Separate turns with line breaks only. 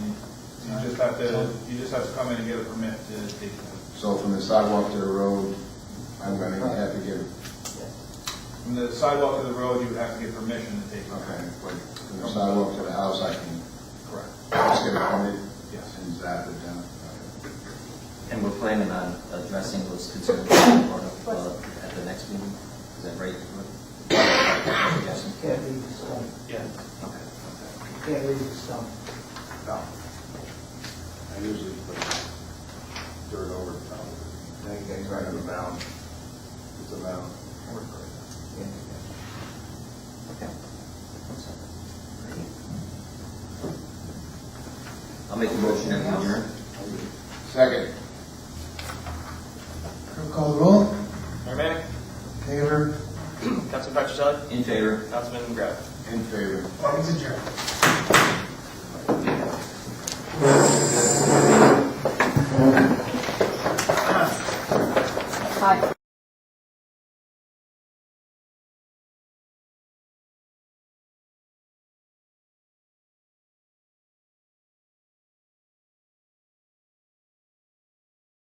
You just have to, you just have to come in and get a permit to dig them.
So from the sidewalk to the road, I'm gonna have to give,
From the sidewalk to the road, you would have to get permission to dig them.
okay, but from the sidewalk to the house, I can
Correct.
just get a permit
Yes.
and zap it down. Okay.
And we're planning on addressing those concerns that were brought up, uh, at the next meeting, is that right? Suggestion?
Can't leave the stump,
Yeah.
Okay.
can't leave the stump.
I usually put dirt over the top of it. Now you guys are in a mound. It's a mound.
Okay. I'll make a motion to adjourn.
Second.
Call the roll?
Mayor Manning,
Favor?
Councilman Patricelli,
In favor?
Councilman McGrath.
In favor.
Meeting's adjourned.
Hi.